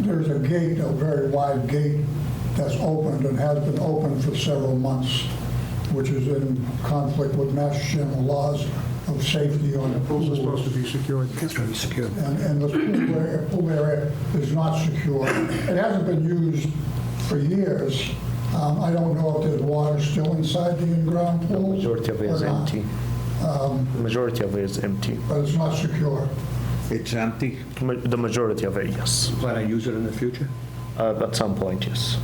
there's a gate, a very wide gate that's opened and has been open for several months, which is in conflict with Mass General laws of safety on The pools are supposed to be secured. and, and the pool area, pool area is not secure. It hasn't been used for years. Um, I don't know if there's water still inside the in-ground pool. Majority of it is or not, empty. Um, Majority of it is empty. But it's not secure. It's empty. Ma- The majority of it, yes. Plan I use it in the future? Uh, At some point, yes.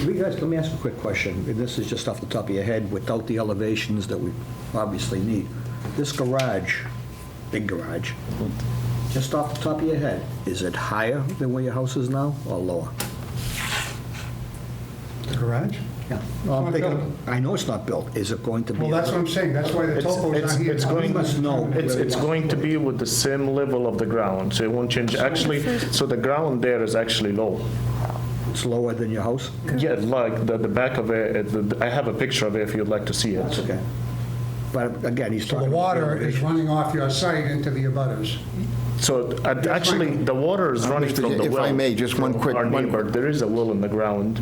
You guys, let me ask a quick question. And This is just off the top of your head, without the elevations that we obviously need. This garage, big garage, just off the top of your head, is it higher than where your house is now or lower? The garage? Yeah. not I'm thinking, built. I know it's not built. Is it going to be? Well, that's what I'm saying, that's why the It's, topo's it's, not here. it's Now, we going, must know it's, where we it's are. going to be with the same level of the ground, so it won't change. Actually, so the ground there is actually low. It's lower than your house? Yeah, like the, the back of it, it- the- I have a picture of it if you'd like to see That's it. okay. But again, he's So the talking. about water is elevation. running off your site into the abutters. So uh, actually, the water is running Mr. from the If well. I may, just one from quick- Our one- neighbor, there is a well in the ground,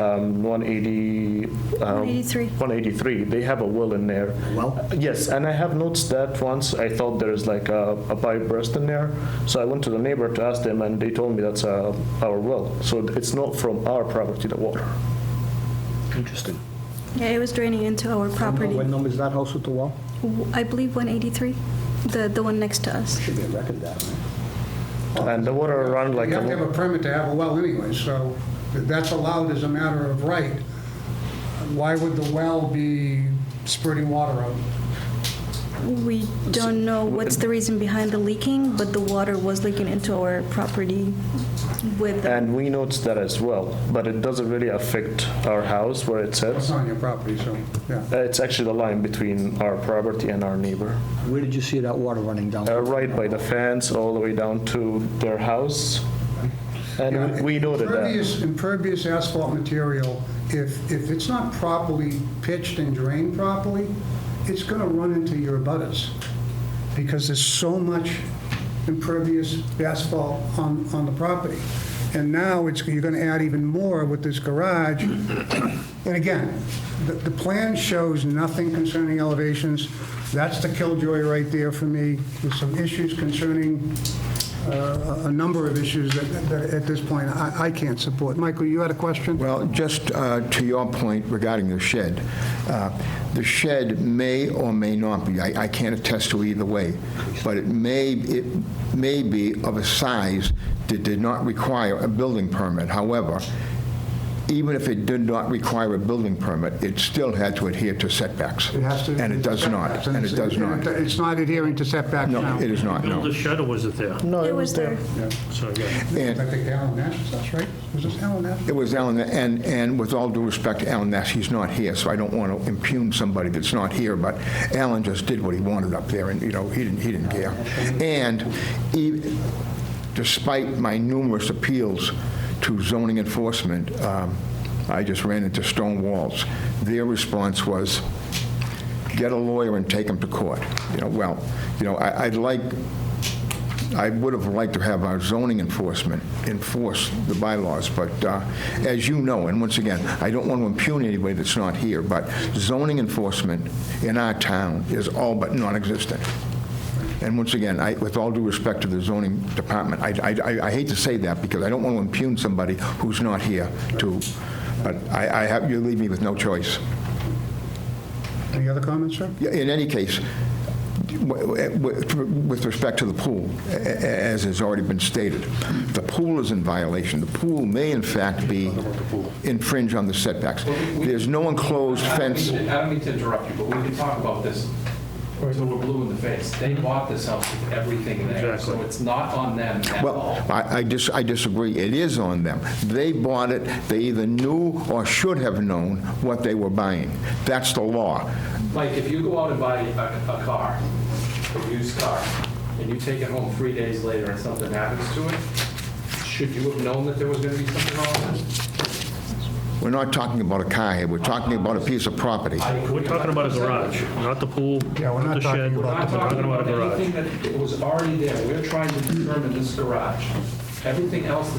um, 180. um, 183. 183, they have a well in there. Uh, well? Yes, and I have noticed that once, I thought there is like a a pipe burst in there. So I went to the neighbor to ask them, and they told me that's uh, our well. So it's not from our property, the water. Interesting. Yeah, it was draining into our property. What number is that house with the wall? W- I believe 183, the, the one next to us. Should be a record of that, right? And the water run like. You a have to have a permit to have a well anyway, so that's allowed as a matter of right. Why would the well be spurting water out? We don't know what's the reason behind the leaking, but the water was leaking into our property with, And we noticed that as well, but it doesn't really affect our house where it It's sits. on your property, so, yeah. Uh, It's actually the line between our property and our neighbor. Where did you see that water running down? Uh, Right by the fence, all the way down to their house. And we- we noted that. Impervious, impervious asphalt material, if, if it's not properly pitched and drained properly, it's going to run into your butters, because there's so much impervious asphalt on, on the property. And now it's, you're going to add even more with this garage. And again, the, the plan shows nothing concerning elevations. That's the killjoy right there for me. There's some issues concerning uh, a a number of issues that, that at this point, I, I can't support. Michael, you had a question? Well, just uh, to your point regarding the shed, uh, the shed may or may not be, I I can't attest to either way, but it may, it may be of a size that did not require a building permit. However, even if it did not require a building permit, it still had to adhere to setbacks. It has to- And it does not, setbacks, and it does it's- not. It's not adhering to setbacks now. No, it is not, Build no. the shed or was it there? No, it was there. So, yeah. And- I think Alan Nash, that's right? Was this Alan Nash? It was Alan, and, and with all due respect to Alan Ness, he's not here, so I don't want to impugn somebody that's not here, but Alan just did what he wanted up there, and, you know, he didn't, he didn't care. And e- despite my numerous appeals to zoning enforcement, um, I just ran into stone walls. Their response was, get a lawyer and take him to court. You know, well, you know, I- I'd like I would have liked to have our zoning enforcement enforce the bylaws, but uh, as you know, and once again, I don't want to impugn anybody that's not here, but zoning enforcement in our town is all but non-existent. And once again, I, with all due respect to the zoning department, I, I, I hate to say that because I don't want to impugn somebody who's not here to, but I, I have, you leave me with no choice. Any other comments, sir? Yeah, In any case, w- w- with respect to the pool, a- a- as has already been stated, the pool is in violation. The pool may in fact be infringe on the setbacks. There's no enclosed I don't mean fence. to- I don't mean to interrupt you, but we can talk about this until we're blue in the face. They bought this house with everything there, so it's not on them at all. Well, I I dis- I disagree. It is on them. They bought it, they either knew or should have known what they were buying. That's the law. Like, if you go out and buy a, a car, a used car, and you take it home three days later and something happens to it, should you have known that there was gonna be something wrong with it? We're not talking about a car here, we're talking about a piece of property. I- We're talking about a garage, not the pool, Yeah, we're not not the talking about shed. the- We're We're not talking about a garage. anything that was already there. We're trying to determine this garage. Everything else